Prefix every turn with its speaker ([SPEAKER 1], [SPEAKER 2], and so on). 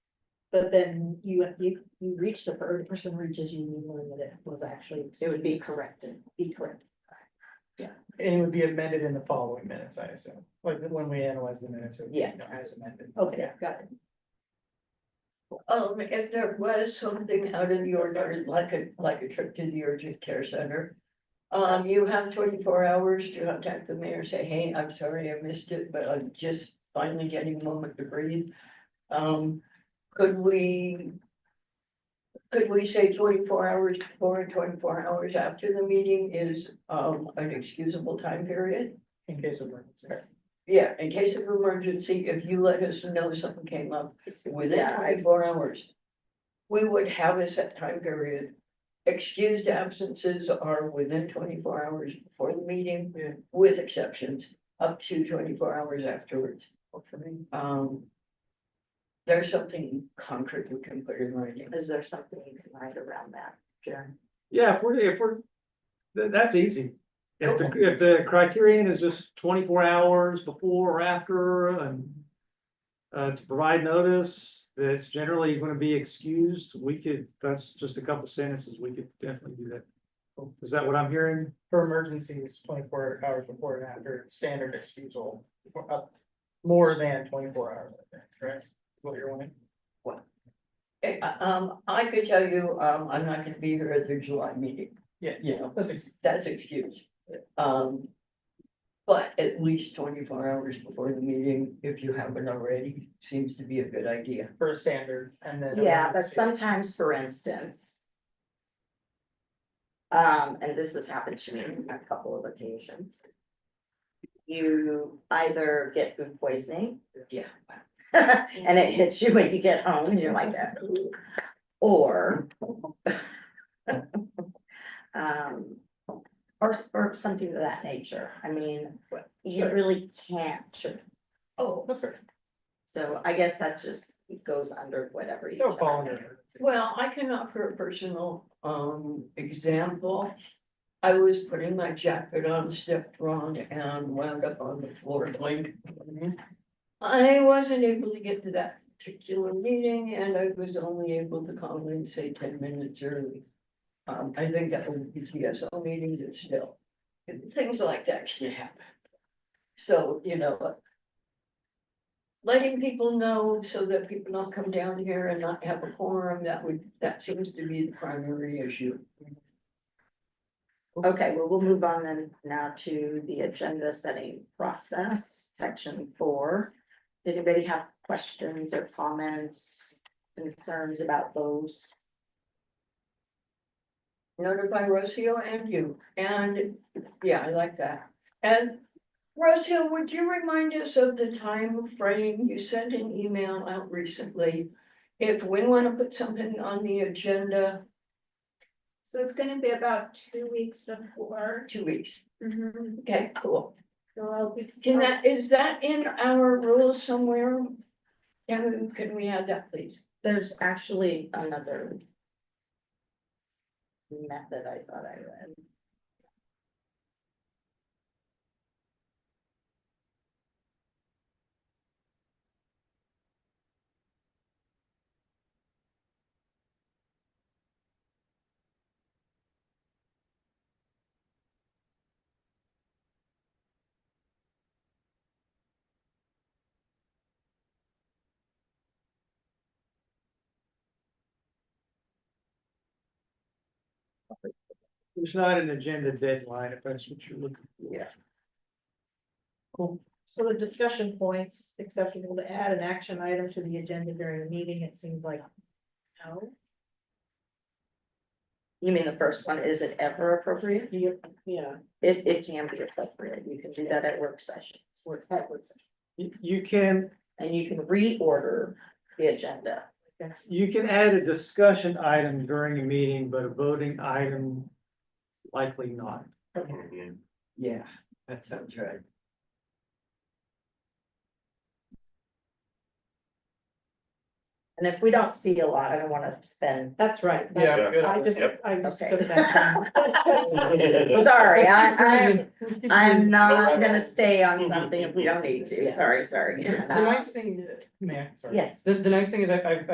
[SPEAKER 1] But then you, you, you reach the, per- the person reaches you, you learn that it was actually.
[SPEAKER 2] It would be corrected.
[SPEAKER 1] Be correct.
[SPEAKER 3] And it would be amended in the following minutes, I assume, like when we analyze the minutes, it would be, you know, as amended.
[SPEAKER 1] Okay,
[SPEAKER 3] Yeah.
[SPEAKER 1] got it.
[SPEAKER 4] Um, if there was something out of the ordinary, like a, like a trip to the urgent care center. Um, you have twenty-four hours to contact the mayor, say, hey, I'm sorry I missed it, but I'm just finally getting a moment to breathe. Um, could we? Could we say twenty-four hours before and twenty-four hours after the meeting is, um, an excusable time period?
[SPEAKER 3] In case of emergency.
[SPEAKER 4] Yeah, in case of emergency, if you let us know something came up within
[SPEAKER 1] Yeah, I-
[SPEAKER 4] twenty-four hours. We would have a set time period. Excused absences are within twenty-four hours before the meeting.
[SPEAKER 3] Yeah.
[SPEAKER 4] With exceptions, up to twenty-four hours afterwards. Um. There's something concrete we can put in writing.
[SPEAKER 2] Is there something you can write around that, Sharon?
[SPEAKER 5] Yeah, if we're, if we're, tha- that's easy. If the, if the criterion is just twenty-four hours before or after and. Uh, to provide notice that's generally gonna be excused, we could, that's just a couple sentences, we could definitely do that. Is that what I'm hearing?
[SPEAKER 3] For emergencies, twenty-four hours before and after, standard excusal, for up more than twenty-four hours, I think, right? What you're wanting?
[SPEAKER 4] Eh, uh, Um, I could tell you, um, I'm not gonna be here at the July meeting.
[SPEAKER 3] Yeah.
[SPEAKER 4] You know,
[SPEAKER 3] That's ex-
[SPEAKER 4] that's excused. Um. But at least twenty-four hours before the meeting, if you haven't already, seems to be a good idea.
[SPEAKER 3] for a standard and then.
[SPEAKER 2] Yeah, but
[SPEAKER 3] emergency.
[SPEAKER 2] sometimes, for instance. Um, and this has happened to me on a couple of occasions. You either get food poisoning.
[SPEAKER 4] Yeah.
[SPEAKER 2] And it hits you when you get home and you're like that. Or. Um, or, or something of that nature. I mean, you really can't.
[SPEAKER 4] Oh,
[SPEAKER 3] That's fair.
[SPEAKER 2] So I guess that just goes under whatever you.
[SPEAKER 3] They'll fall under. emergency.
[SPEAKER 4] well, I can offer a personal um example. I was putting my jacket on, stepped wrong and wound up on the floor blank. I wasn't able to get to that particular meeting and I was only able to call in, say, ten minutes early. Um, I think that would be TSO meeting, but still, things like that can happen. So, you know, but letting people know so that people don't come down here and not have a quorum, that would, that seems to be the primary issue.
[SPEAKER 2] Okay, well, we'll move on then now to the agenda setting process, section four. Did anybody have questions or comments, concerns about those?
[SPEAKER 4] Notify Rocio and you, and, yeah, I like that. And Rocio, would you remind us of the time frame? You sent an email out recently. If we want to put something on the agenda,
[SPEAKER 6] So it's gonna be about two weeks before.
[SPEAKER 4] two weeks.
[SPEAKER 6] So
[SPEAKER 4] Okay, cool.
[SPEAKER 6] I'll be.
[SPEAKER 4] Can that, is that in our rules somewhere? Can, we- can we add that, please?
[SPEAKER 2] There's actually another. Method I thought I read.
[SPEAKER 5] There's not an agenda deadline, if that's what you're looking for. Yeah.
[SPEAKER 1] So the discussion points, acceptable to add an action item to the agenda during a meeting, it seems like. No,
[SPEAKER 2] You mean the first one, is it ever appropriate?
[SPEAKER 1] you, yeah,
[SPEAKER 2] It, it can be appropriate, you can do that at work sessions,
[SPEAKER 1] it's worth, that works.
[SPEAKER 5] You, you can,
[SPEAKER 2] and you can reorder the agenda.
[SPEAKER 5] you can add a discussion item during a meeting, but a voting item likely not.
[SPEAKER 4] Yeah, that sounds right.
[SPEAKER 2] And if we don't see a lot, I don't wanna spend
[SPEAKER 1] That's right. that's-
[SPEAKER 3] Yeah, good.
[SPEAKER 1] I just,
[SPEAKER 7] Yep.
[SPEAKER 1] I just
[SPEAKER 2] Okay.
[SPEAKER 1] took that. down.
[SPEAKER 2] Sorry, I- I'm-
[SPEAKER 1] Who's confused?
[SPEAKER 2] I'm not
[SPEAKER 7] right
[SPEAKER 2] gonna
[SPEAKER 7] on.
[SPEAKER 2] stay on something if we don't need to, sorry, sorry.
[SPEAKER 3] The nice thing, man, sorry.
[SPEAKER 2] Yes.
[SPEAKER 3] The, the nice thing is I, I've,